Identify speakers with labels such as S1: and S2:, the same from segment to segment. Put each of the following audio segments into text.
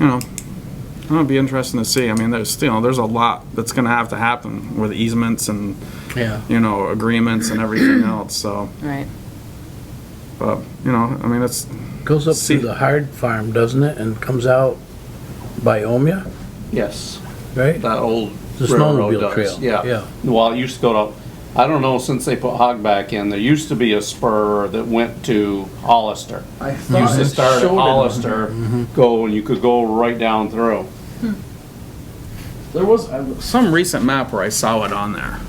S1: you know, it'll be interesting to see. I mean, there's, you know, there's a lot that's gonna have to happen with easements and,
S2: Yeah.
S1: you know, agreements and everything else, so,
S3: Right.
S1: but, you know, I mean, it's,
S2: Goes up
S1: See-
S2: through the hard farm, doesn't it, and comes out by Omea,
S4: Yes,
S2: right?
S4: that old
S2: The
S4: railroad
S2: snowmobile
S4: does,
S2: trail.
S4: yeah. Well, it used to go to, I don't know, since they put Hog back in, there used to be a spur that went to Hollister.
S5: I
S4: Used
S5: thought
S4: to
S5: it
S4: start at
S5: showed it on Mm-hmm. here.
S4: Hollister, go, and you could go right down through.
S5: There was, I was-
S1: uh, some recent map where I saw it on there.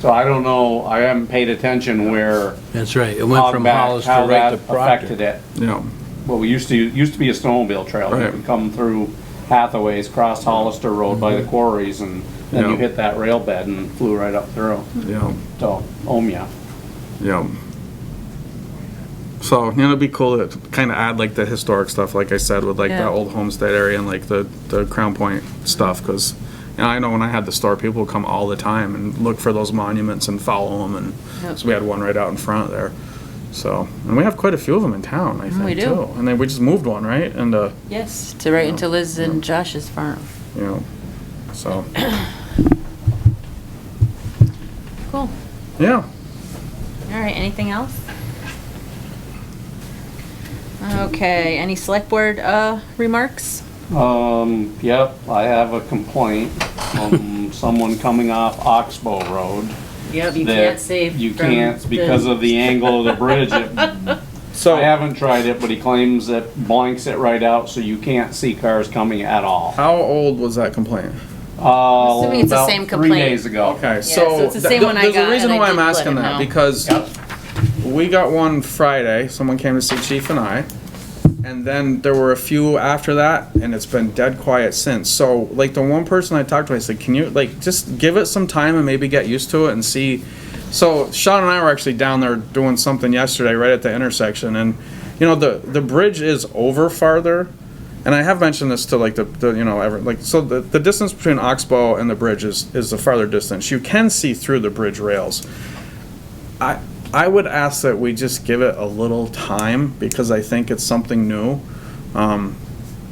S4: So I don't know, I haven't paid attention where
S2: That's right, it went
S4: Hog
S2: from
S4: back,
S2: Hollister
S4: how
S2: right
S4: that
S2: to Proctor.
S4: affected it.
S1: You know,
S4: Well, we used to, used to be a snowmobile trail. You
S1: Right.
S4: could come through Hathaways, cross Hollister Road by the
S2: Mm-hmm.
S4: quarries, and then
S1: Yeah.
S4: you hit that rail bed and flew right up through oh,
S1: you know,
S4: to Omea.
S1: you know. So, you know, it'd be cool to kind of add like the historic stuff, like I said, with like
S3: Yeah.
S1: that old homestead area and like the, the Crown Point stuff, because, you know, I know when I had the store, people would come all the time and look for those monuments and follow them,
S3: Yep.
S1: and so we had one right out in front there. So, and we have quite a few of them in town, I
S3: Mm, we
S1: think,
S3: do.
S1: too. And then we just moved one, right? And, uh,
S3: Yes, to right into Liz and Josh's farm.
S1: you know, so,
S3: Cool.
S1: yeah.
S3: All right, anything else? Okay, any select board, uh, remarks?
S4: Um, yep, I have a complaint from someone coming off Oxbow Road.
S3: Yep, you
S4: that
S3: can't save.
S4: You can't because of the angle of the bridge. It-
S1: So,
S4: I haven't tried it, but he claims it blanks it right out, so you can't see cars coming at all.
S1: how old was that complaint?
S4: Uh,
S3: Assuming it's the
S4: about
S3: same
S4: Three
S3: complaint.
S4: days ago.
S1: Okay,
S3: so
S1: so.
S3: it's the
S1: th-
S3: same
S1: th-
S3: one I got,
S1: There's a
S3: and
S1: reason
S3: I
S1: why I'm
S3: did let
S1: asking
S3: him
S1: that,
S3: know.
S1: because
S4: Yep.
S1: we got one Friday, someone came to see Chief and I, and then there were a few after that, and it's been dead quiet since. So, like, the one person I talked to, I said, can you, like, just give it some time and maybe get used to it and see. So Sean and I were actually down there doing something yesterday, right at the intersection, and, you know, the, the bridge is over farther, and I have mentioned this to like the, the you know ever like so the, the distance between Oxbow and the bridge is is the farther distance. You can see through the bridge rails. I I would ask that we just give it a little time because I think it's something new. Um,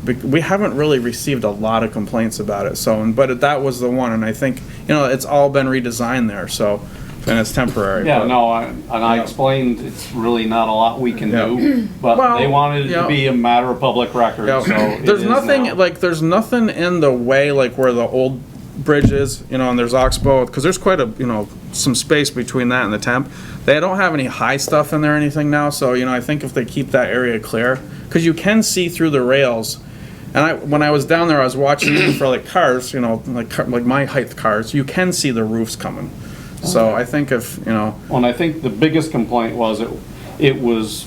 S1: bec- we haven't really received a lot of complaints about it. So, and- but that was the one, and I think you know it's all been redesigned there. So, and it's temporary.
S4: Yeah,
S1: but-
S4: no, I- and I explained it's really not a lot we can
S1: Yeah.
S4: do, but they
S1: Well,
S4: wanted it to
S1: yeah.
S4: be a matter of public record, so.
S1: Yeah.
S4: it
S1: oh, There's
S4: is
S1: nothing
S4: now.
S1: like there's nothing in the way like where the old bridge is, you know, and there's Oxbow because there's quite a you know some space between that and the temp. They don't have any high stuff in there or anything now, so you know I think if they keep that area clear because you can see through the rails. And I, when I was down there, I was watching for like cars, you know, like car- like my height cars. You can see the roofs coming, so I think if you know,
S4: Well, And I think the biggest complaint was it, it was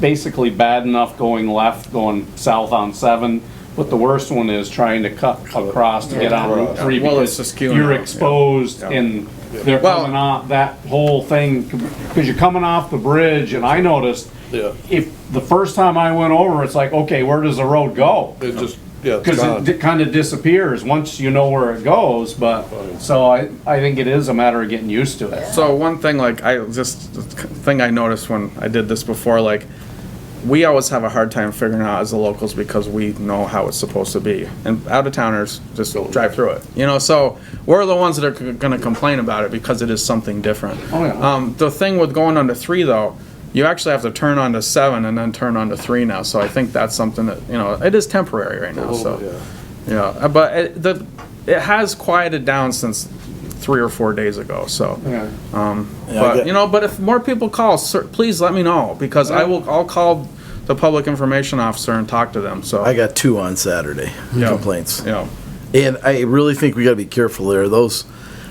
S4: basically bad enough going left, going south on seven, but the worst one is trying to cut across to get on Route three.
S1: Yeah, well, it's
S4: because
S1: just queuing
S4: You're
S1: up, yeah.
S4: exposed
S1: Yeah.
S4: and they're
S1: Well-
S4: coming off that whole thing, because you're coming off the bridge and I noticed
S6: Yeah,
S4: if, the first time I went over, it's like, okay, where does the road go?
S6: it just, yeah, it's gone.
S4: Because it kind of disappears once you know where it goes, but, so I, I think it is a matter of getting used to it.
S1: So one thing, like I just thing I noticed when I did this before, like we always have a hard time figuring out as the locals because we know how it's supposed to be, and out of towners just drive through it. You know, so we're the ones that are c- going to complain about it because it is something different.
S4: Oh, yeah.
S1: Um, the thing with going onto three though, you actually have to turn onto seven and then turn onto three now. So I think that's something that you know it is temporary right now. So.
S6: Oh, yeah.
S1: Yeah, uh, but it, the, it has quieted down since three or four days ago, so.
S4: Yeah.
S6: Yeah, I
S1: But,
S6: get-
S1: you know, but if more people call, sir, please let me know, because I will, I'll call the public information officer and talk to them, so.
S7: I got two on Saturday
S1: Yeah.
S7: complaints,
S1: Yeah,
S7: and I really think we got to be careful there. Those,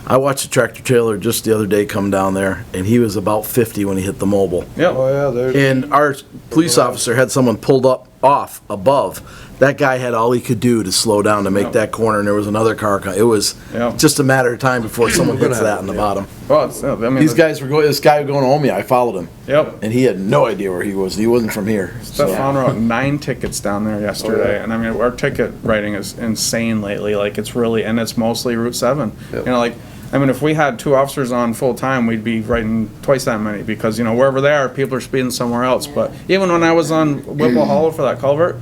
S7: I watched a tractor trailer just the other day come down there, and he was about fifty when he hit the mobile.
S1: yeah,
S6: Oh, yeah, there's,
S7: And our police officer had someone pulled up off above. That guy had all he could do to slow down to make that corner, and there was another car. co- It was
S1: Yeah.
S7: just a matter of time before someone
S6: gonna
S7: hits that
S6: have
S7: in
S6: it,
S7: the
S6: yeah.
S7: bottom.
S1: well, it's, I mean.
S7: These
S1: the-
S7: guys were going. This guy going home. Yeah, I followed him,
S1: Yep,
S7: and he had no idea where he was. He wasn't from here. so-
S1: Stefan wrote nine tickets down there
S6: Oh,
S1: yesterday, and I mean, our ticket writing is insane lately, like, it's really, and it's mostly Route seven. You know, like, I mean, if we had two officers on full-time, we'd be writing twice that many, because, you know, wherever they are, people are speeding somewhere else, but even when I was on Whipple Hollow for that culvert,